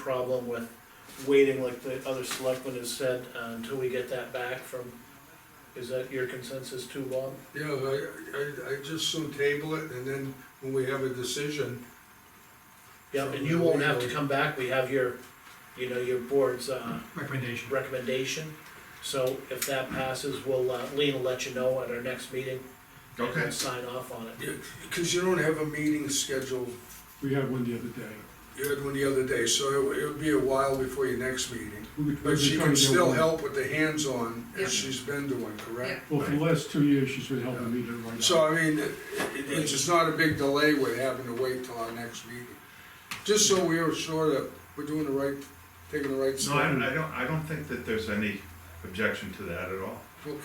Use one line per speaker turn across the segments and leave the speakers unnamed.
problem with waiting, like the other selectman has said, uh, until we get that back from, is that your consensus too, Bob?
Yeah, I, I, I just soon table it, and then when we have a decision,
Yep, and you won't have to come back, we have your, you know, your board's, uh,
recommendation.
recommendation. So if that passes, we'll, uh, Lean will let you know at our next meeting. and
Okay.
we'll Sign off on it.
because you don't have a meeting scheduled,
We had one the other day.
you had one the other day, so it it would be a while before your next meeting.
We were- we were
But she
trying
can
to get
still
one.
help with the hands-on,
Yeah.
as she's been doing, correct?
Well, for the last two years, she's been helping me do it right now.
So I mean, it, it- it's just not a big delay with having to wait till our next meeting. Just so we are sure that we're doing the right, taking the right
No, I,
step.
I don't, I don't think that there's any objection to that at all.
Okay,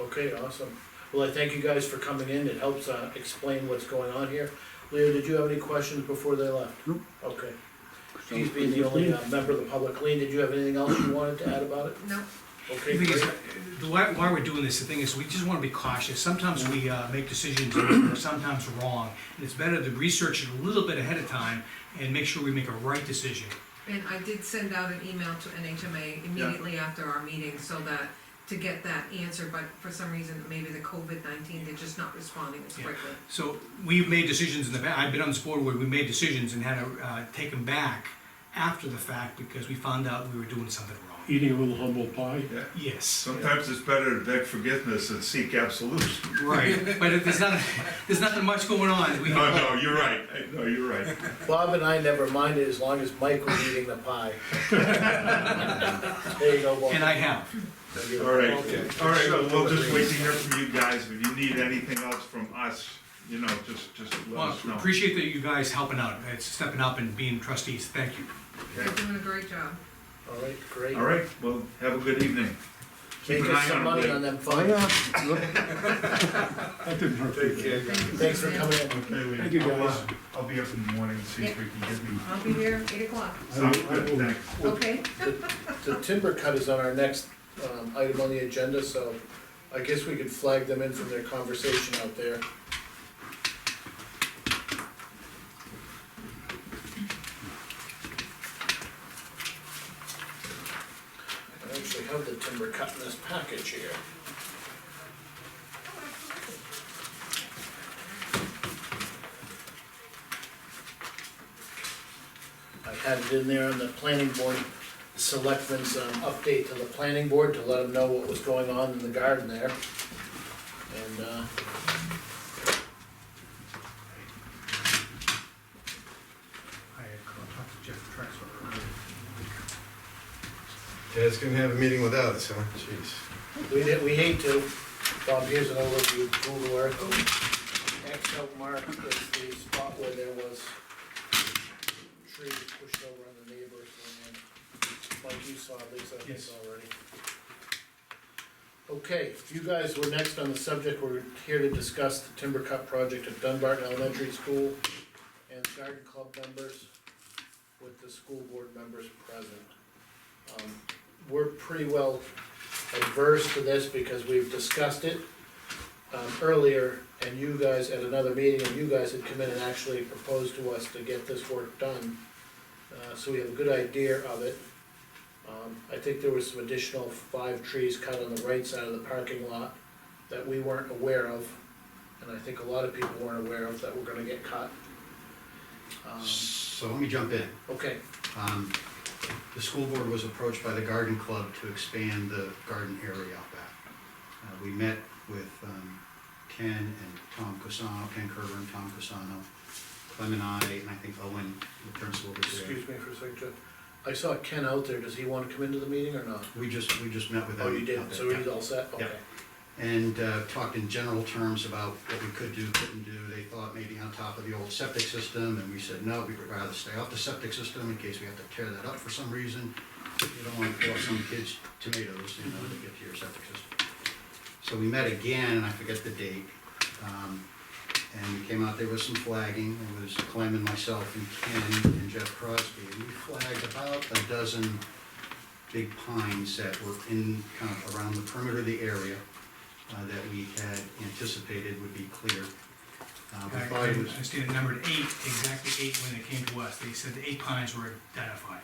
Okay, awesome. Well, I thank you guys for coming in, it helps, uh, explain what's going on here. Leo, did you have any questions before they left?
Nope.
Okay. He's being the only, uh, member of the public. Lean, did you have anything else you wanted to add about it?
No,
Okay,
The thing is,
great.
uh, the why, why we're doing this, the thing is, we just wanna be cautious, sometimes we, uh, make decisions that are sometimes wrong. And it's better to research it a little bit ahead of time and make sure we make a right decision.
and I did send out an email to NHMA immediately after our meeting, so that, to get that answer, but for some reason, maybe the COVID nineteen, they're just not responding as
Yeah.
quickly.
So, we've made decisions in the past, I've been on this board where we made decisions and had to, uh, take them back after the fact because we found out we were doing something wrong.
Eating a little humble pie.
Yeah.
Yes,
Sometimes it's better to beg forgiveness than seek absolution.
right, but if there's not, there's nothing much going on, we
No,
can,
no, you're right, no, you're right.
Bob and I never minded as long as Mike was eating the pie. There you go, Bob.
and I have.
All right, all right, well, we'll just wait to hear from you guys, if you need anything else from us, you know, just, just let
Well,
us know.
appreciate that you guys helping out, uh, stepping up and being trustees, thank you.
They're doing a great job.
All right, great.
All right, well, have a good evening.
Make
Keep an
us
eye
some
on
money
Lee.
on them funds.
That didn't hurt.
take care,
people.
guys.
Thanks for coming in.
Okay, Lee.
Thank you,
I'll,
guys.
uh, I'll be up in the morning and see if we can get me.
I'll be here eight o'clock,
Sounds good, thanks.
okay?
The timber cut is on our next, um, item on the agenda, so I guess we could flag them in from their conversation out there. I actually have the timber cut in this package here. I had it in there on the planning board, selectmen's, um, update to the planning board to let them know what was going on in the garden there. And, uh.
I talked to Jeff
Ted's gonna have a meeting without us, huh? Jeez.
We did, we hate to, Bob, here's an overview, Google Earth. X out mark is the spot where there was trees pushed over on the neighbors, and then, like you saw, Lisa, I
Yes.
saw already. Okay, you guys were next on the subject, we're here to discuss the timber cut project at Dunbarton Elementary School and garden club members with the school board members present. Um, We're pretty well adverse to this because we've discussed it um, earlier, and you guys at another meeting, and you guys had come in and actually proposed to us to get this work done. Uh, so we have a good idea of it. Um, I think there was some additional five trees cut on the right side of the parking lot that we weren't aware of, and I think a lot of people weren't aware of that were gonna get cut. Um,
So let me jump in.
okay,
Um, The school board was approached by the garden club to expand the garden area out back. Uh, We met with um, Ken and Tom Cosano, Ken Kerber and Tom Cosano, Clem and I, and I think Owen, the principal was there.
excuse me for a second, Jeff. I saw Ken out there, does he wanna come into the meeting or not?
We just, we just met with them.
Oh, you
out
did,
there,
so
yeah.
he's all set,
Yeah.
okay.
and uh, talked in general terms about what we could do, couldn't do. They thought maybe on top of the old septic system, and we said, no, we'd rather stay off the septic system in case we have to tear that up for some reason. You don't want to throw some kids tomatoes, you know, to get to your septic system. So we met again, and I forget the date, um, and we came out, there was some flagging, it was Clem and myself and Ken and Jeff Crosby. And we flagged about a dozen big pines that were in, kind of around the perimeter of the area uh, that we had anticipated would be cleared. Uh, we
I
thought it was
I stated numbered eight, exactly eight when it came to us, they said the eight pines were identified.